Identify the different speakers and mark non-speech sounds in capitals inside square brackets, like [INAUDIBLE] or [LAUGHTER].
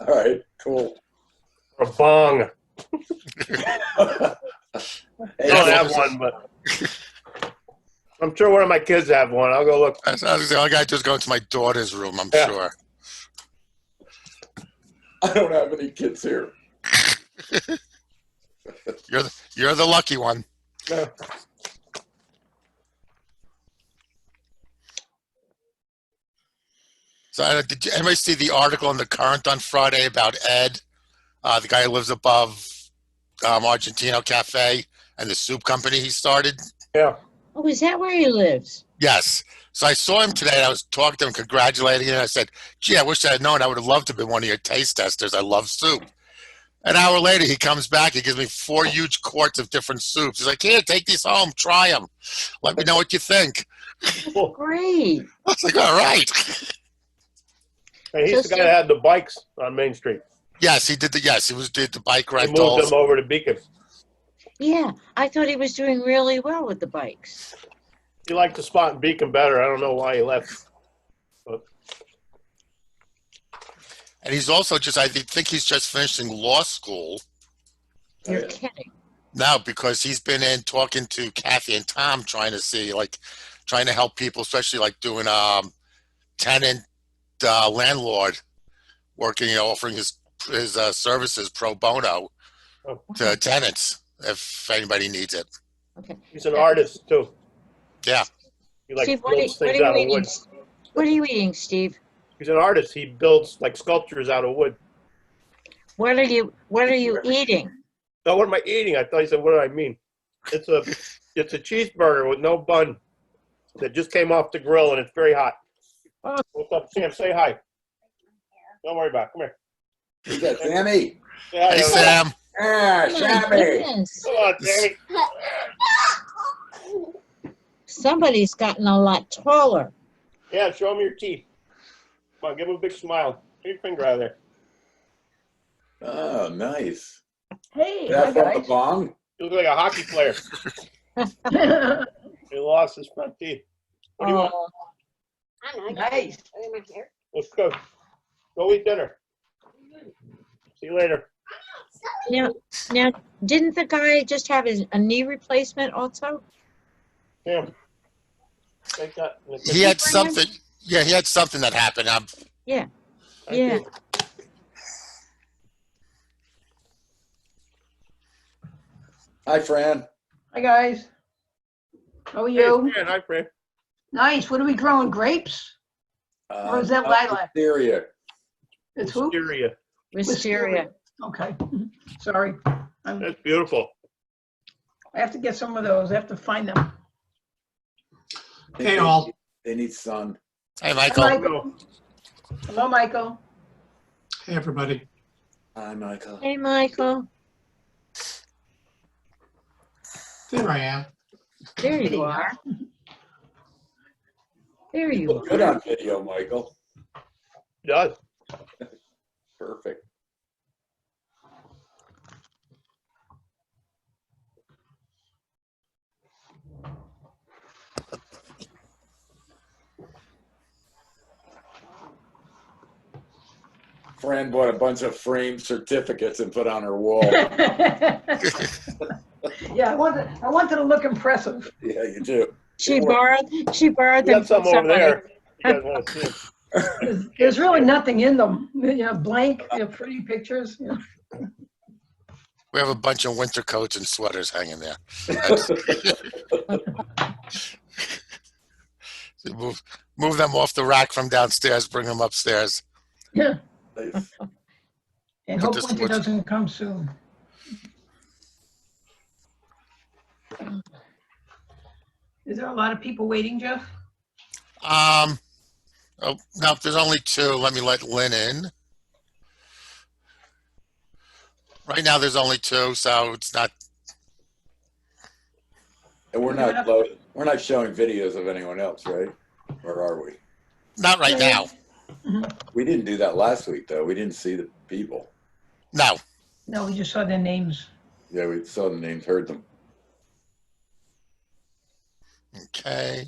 Speaker 1: All right, cool.
Speaker 2: or a
Speaker 1: [LAUGHS]
Speaker 2: bong. I
Speaker 1: Hey,
Speaker 2: don't
Speaker 1: so-
Speaker 2: have one, but [LAUGHS] I'm sure one of my kids have one. I'll go look.
Speaker 3: I was- I was- All I got to do is go into my daughter's room, I'm
Speaker 2: Yeah.
Speaker 3: sure.
Speaker 1: I don't have any kids here.
Speaker 3: You're the, you're the lucky one.
Speaker 2: Yeah.
Speaker 3: So I don't- did you, anybody see the article in the Current on Friday about Ed, uh, the guy who lives above um, Argentino Cafe and the soup company he started?
Speaker 2: Yeah.
Speaker 4: Oh, is that where he lives?
Speaker 3: Yes. So I saw him today. And I was talking to him, congratulating him. I said, "Gee, I wish I had known. I would have loved to have been one of your taste testers. I love soup." An hour later, he comes back. He gives me four huge quarts of different soups. He's like, "Here, take these home. Try them. Let me know what you think."
Speaker 2: Cool.
Speaker 4: Great.
Speaker 3: I was like, "All right."
Speaker 2: And he's the guy that had the bikes on Main Street.
Speaker 3: Yes, he did the. Yes, he was did the bike
Speaker 2: I moved
Speaker 3: rentals.
Speaker 2: them over to Beacon.
Speaker 4: Yeah, I thought he was doing really well with the bikes.
Speaker 2: He liked the spot in Beacon better. I don't know why he left.
Speaker 3: And he's also just. I think he's just finishing law school
Speaker 4: You're kidding.
Speaker 3: now because he's been in talking to Kathy and Tom, trying to see like, trying to help people, especially like doing um, tenant uh, landlord working, you know, offering his his uh, services pro bono
Speaker 2: Oh.
Speaker 3: to tenants if anybody needs it.
Speaker 2: He's an artist too.
Speaker 3: Yeah.
Speaker 2: He like
Speaker 4: Steve, what are,
Speaker 2: builds
Speaker 4: what
Speaker 2: things
Speaker 4: are
Speaker 2: out
Speaker 4: you eating?
Speaker 2: of wood.
Speaker 4: What are you eating, Steve?
Speaker 2: He's an artist. He builds like sculptures out of wood.
Speaker 4: What are you What are you eating?
Speaker 2: No, what am I eating? I thought he said, what do I mean? It's a, [LAUGHS] it's a cheeseburger with no bun that just came off the grill and it's very hot.
Speaker 4: Oh.
Speaker 2: What's up, Sam? Say hi. Don't worry about it. Come here.
Speaker 1: Is that Sammy?
Speaker 2: Say hi,
Speaker 3: Hey
Speaker 2: everybody.
Speaker 3: Sam,
Speaker 1: Ah,
Speaker 4: Oh, My
Speaker 1: Sammy.
Speaker 4: goodness.
Speaker 2: Come on, Sammy.
Speaker 4: Somebody's gotten a lot taller.
Speaker 2: Yeah, show him your teeth. Come on, give him a big smile. Get your finger out of there.
Speaker 1: Oh, nice.
Speaker 5: Hey, hi
Speaker 1: That from the
Speaker 5: guys.
Speaker 1: bong?
Speaker 2: You look like a hockey player. He lost his front teeth. What do you want?
Speaker 4: Oh,
Speaker 5: Nice.
Speaker 2: Let's go. Go eat dinner. See you later.
Speaker 4: Now, now, didn't the guy just have his, a knee replacement also?
Speaker 2: Sam. Take that.
Speaker 3: he had something. Yeah, he had something that happened. Um,
Speaker 2: Thank you.
Speaker 4: Yeah.
Speaker 1: Hi, Fran.
Speaker 5: Hi guys. How are
Speaker 2: Hey,
Speaker 5: you?
Speaker 2: Fran, Hi, Fran.
Speaker 5: Nice. What are we growing? Grapes? Or is that
Speaker 1: Um,
Speaker 5: lilac?
Speaker 1: Syria.
Speaker 5: It's who?
Speaker 2: Wisteria.
Speaker 4: Wisteria.
Speaker 5: Okay. [LAUGHS] Sorry. I'm-
Speaker 2: That's beautiful.
Speaker 5: I have to get some of those. I have to find them.
Speaker 1: They
Speaker 6: Hey,
Speaker 1: need-
Speaker 6: all.
Speaker 1: They need sun.
Speaker 3: hey
Speaker 5: Hi,
Speaker 3: Michael,
Speaker 5: Michael. Hello, Michael.
Speaker 6: Hey, everybody.
Speaker 1: Hi, Michael.
Speaker 4: Hey, Michael.
Speaker 6: There I am.
Speaker 4: There
Speaker 5: Hey.
Speaker 4: you are. There you
Speaker 1: Look
Speaker 4: are.
Speaker 1: good on video, Michael.
Speaker 2: It Does.
Speaker 1: Perfect. Fran bought a bunch of framed certificates and put on her wall.
Speaker 5: Yeah, [LAUGHS] I wanted, I wanted to look impressive.
Speaker 1: Yeah, you do.
Speaker 4: She borrowed, she borrowed
Speaker 2: We
Speaker 4: them
Speaker 2: got
Speaker 4: from
Speaker 2: some over
Speaker 4: somebody.
Speaker 2: there. You guys want to see it?
Speaker 5: There's- There's really nothing in them, you know, blank, you know, pretty pictures. you know.
Speaker 3: we have a bunch of winter coats and sweaters hanging there. [LAUGHS] move, move them off the rack from downstairs. Bring them upstairs.
Speaker 1: Nice.
Speaker 5: And
Speaker 3: But
Speaker 5: hope
Speaker 3: just
Speaker 5: winter
Speaker 3: what's-
Speaker 5: doesn't come soon. Is there a lot of people waiting, Jeff?
Speaker 3: Um, oh no, there's only two. Let me let Lynn in. Right now, there's only two, so it's not.
Speaker 1: And we're not loading, we're not showing videos of anyone else, right? Or are we?
Speaker 3: Not right now.
Speaker 1: We didn't do that last week, though. We didn't see the people.
Speaker 3: No.
Speaker 5: No, we just saw their names.
Speaker 1: Yeah, we saw the names, heard them.
Speaker 3: Okay.